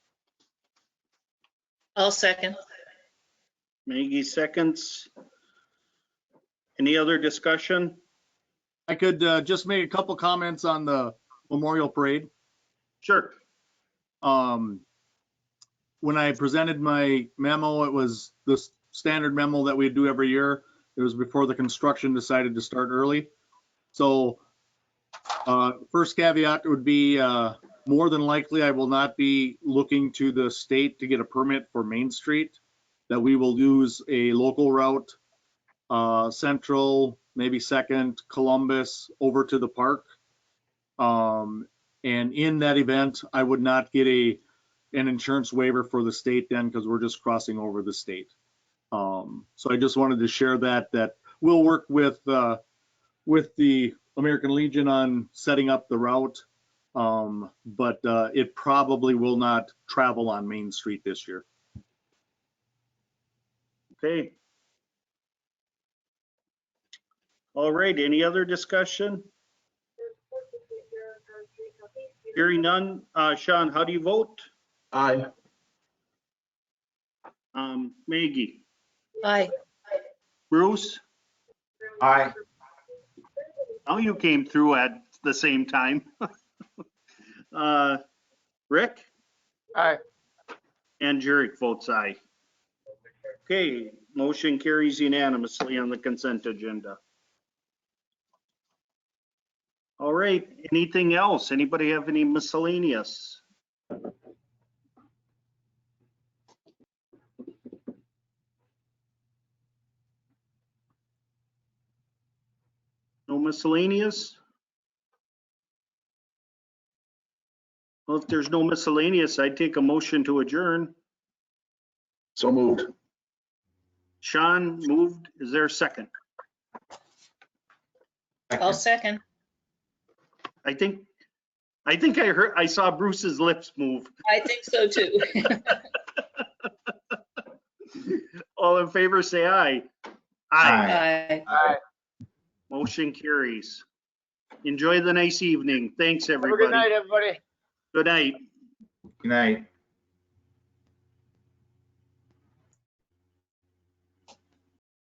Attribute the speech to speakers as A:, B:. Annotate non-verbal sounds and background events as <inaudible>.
A: I'll second.
B: Maggie seconds. Any other discussion?
C: I could uh, just make a couple comments on the Memorial Parade.
B: Sure.
C: Um, When I presented my memo, it was the s- standard memo that we do every year. It was before the construction decided to start early. So uh, first caveat would be, uh, more than likely, I will not be looking to the state to get a permit for Main Street. That we will use a local route, uh, Central, maybe Second, Columbus, over to the park. Um, and in that event, I would not get a, an insurance waiver for the state then because we're just crossing over the state. Um, so I just wanted to share that, that we'll work with, uh, with the American Legion on setting up the route. Um, but, uh, it probably will not travel on Main Street this year.
B: Okay. All right, any other discussion? Hearing none. Uh, Sean, how do you vote?
D: Aye.
B: Um, Maggie?
A: Aye.
B: Bruce?
D: Aye.
B: Now Oh, you came through at the same time. <laughs> Uh, Rick?
D: Aye.
B: And Jurek votes aye. Okay, motion carries unanimously on the consent agenda. All right, anything else? Anybody have any miscellaneous? No miscellaneous? Well, if there's no miscellaneous, I'd take a motion to adjourn.
D: So moved.
B: Sean moved. Is there a second?
A: I'll second.
B: I think, I think I heard, I saw Bruce's lips move.
A: I think so too.
B: All in favor, say aye. Aye.
A: Aye.
D: Aye.
B: Motion carries. Enjoy the nice evening. Thanks,
E: Have a good
B: everybody.
E: night, everybody.
B: Good night.
D: Good night.